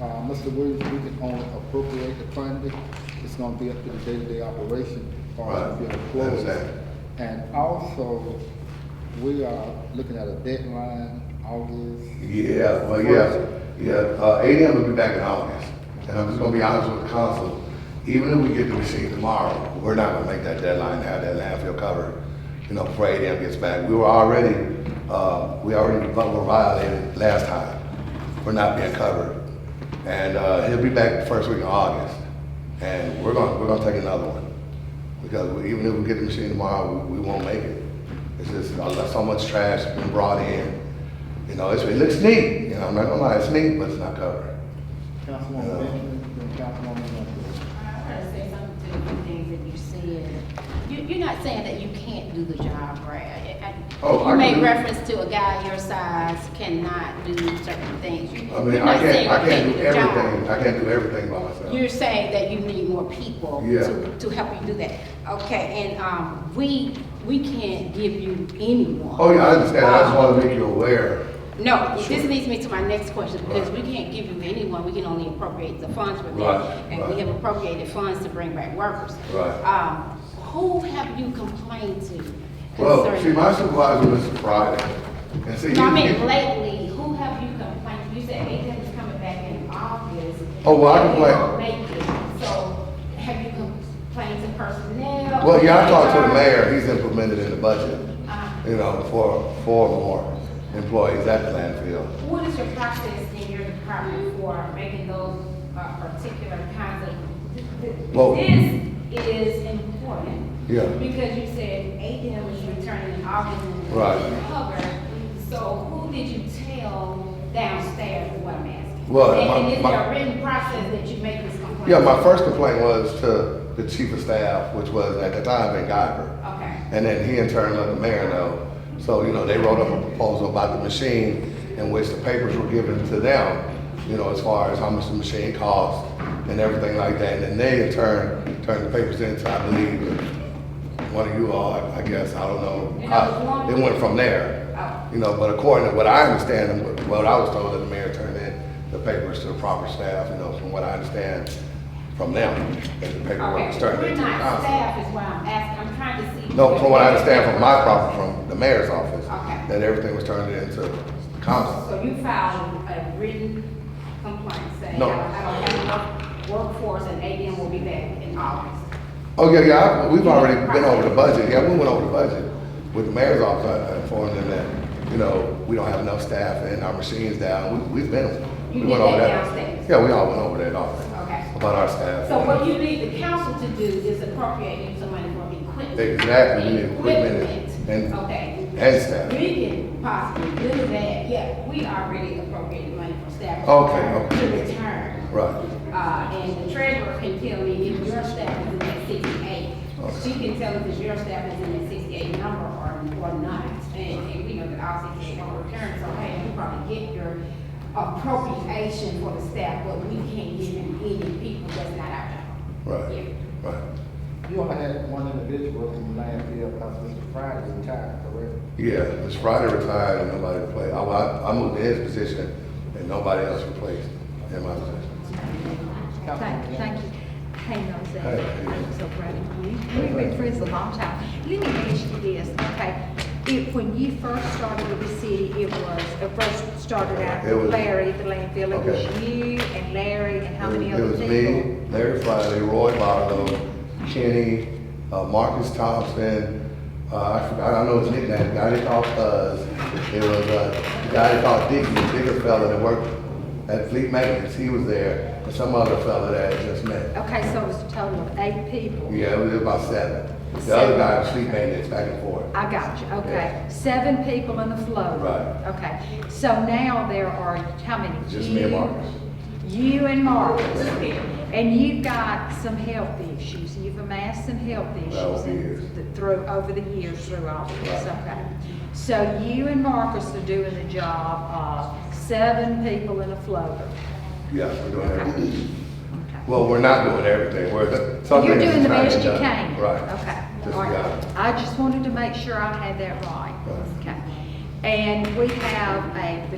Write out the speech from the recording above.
Uh, Mr. Williams, we can only appropriate the funding. It's gonna be up to the day-to-day operation for Right. the That's employees. that. And also, we are looking at a deadline, August. Yeah, well, yeah, yeah, uh, ADM will be back in August, and I'm just gonna be honest with the council, even if we get the machine tomorrow, we're not gonna make that deadline, to have that landfill covered, you know, before ADM gets back, we were already, uh, we already were violated last time for not being covered, and, uh, he'll be back the first week of August, and we're gonna, we're gonna take another one, because we- even if we get the machine tomorrow, we, we won't make it, it's just, uh, so much trash been brought in, you know, it's, it looks neat, you know, I'm not gonna lie, it's neat, but it's not covered. Councilwoman Benjamin, then Councilwoman Humphrey. I gotta say something to the few things that you said. You, you're not saying that you can't do the job, right? I- I- Oh, I You can made do- reference to a guy your size cannot do certain things. You- I mean, you're I not saying can't, I you can't do the job. everything, I can't do everything by myself. You're saying that you need more people Yeah. to, to help you do that. Okay, and, um, we, we can't give you anyone. Oh, yeah, I understand, I just Um, wanna make you aware. No, this leads me to my next question, because we can't give you anyone, we can only appropriate the funds for Right, that. And right. we have appropriated funds to bring back workers. Right. Um, who have you complained to Well, see, concerning? my supervisor was Friday, and see. No, I he- mean, lately, who have you complained, you said Aiden's coming back in August. Oh, well, I and you complained. won't make it. So, have you complained to personnel? Uh, Well, yeah, I talked to the HR? mayor, he's implemented in the budget, Uh-huh. you know, for four more employees at the landfill. What is your process in your department for making those uh, particular kinds of? Well- This is important. Yeah. Because you said ADM is returning in August and Right. covered. So who did you tell downstairs is what I'm asking? Well, And- my- And is my- there a written process that you make this complaint? Yeah, my first complaint was to the chief of staff, which was at the time Ben Guyver. Okay. And then he in turn let the mayor know. So, you know, they wrote up a proposal about the machine in which the papers were given to them, you know, as far as how much the machine cost and everything like that. And then they in turn turned the papers into, I believe, one of you all, I- I guess, I don't know. And that was one? It went from there. Oh. You know, but according to what I understand and what- what I was told that the mayor turned in the papers to the proper staff, you know, from what I understand from them, that the paperwork was Okay, turned we're into the not council. staff is why I'm asking, I'm trying to see. No, from what I understand from my property, from the mayor's office, Okay. that everything was turned into council. So you filed a written complaint saying, I No. don't I don't have enough workforce and ADM will be back in August. Oh, yeah, yeah, I- we've already been over the budget, yeah, we went over the budget with the mayor's office, I I informed them that, you know, we don't have enough staff and our machines down, we, we've been. we You went did over that downstairs? Yeah, we all went over that often. Okay. About our staff. So what you need the council to do is appropriate you some money for equipment. Exactly, we need equipment and- Okay. And staff. We can possibly do that, yeah, we already appropriated money for staff. Okay, okay. To return. Right. Uh, and the treasurer can tell me if your staff is in that sixty-eight. She can tell us if your staff is in that sixty-eight number or, or not. And, and we know that all sixty-eight don't return, so hey, you probably get your appropriation for the staff, but we can't give them any people that's not out there. Right, right. You only had one individual in the landfill, because Mr. Friday retired, correct? Yeah, Ms. Friday retired and nobody replaced, I, I I moved to his position and nobody else replaced in my position. Thank, thank you. Hang on a second. Hey. I'm so proud of you. We've been friends a long time. Let me ask you this, okay? If, when you first started with the city, it was, it first started out It was- with Larry at the landfill. It was Okay. you and Larry and how many It other was people? me, Larry Friday, Roy Barlow, Kenny, uh, Marcus Thompson, uh, I forgot, I know his nickname, the guy they called Fuzz. It was, uh, the guy they called Dickie, the bigger fella that worked at Fleet Maintenance, he was there, and some other fella that I just met. Okay, so it was a total of eight people. Yeah, it was about seven. The other Seven. guy was Fleet Maintenance, back and forth. I got you, okay. Yeah. Seven people in the float. Right. Okay, so now there are, how many? Just me and You- Marcus. You and Marcus. And you've got some health issues, you've amassed some health issues. Over the in- years. th- Through, over the years, through all this, Right. okay. So you and Marcus are doing the job of seven people in a floater. Yeah, we're doing everything. Okay. Well, we're not doing everything, we're. some You're things doing the is not best you done. can. Right. Okay, Just all got right. it. I just wanted to make sure I had that right. Right. Okay. And we have a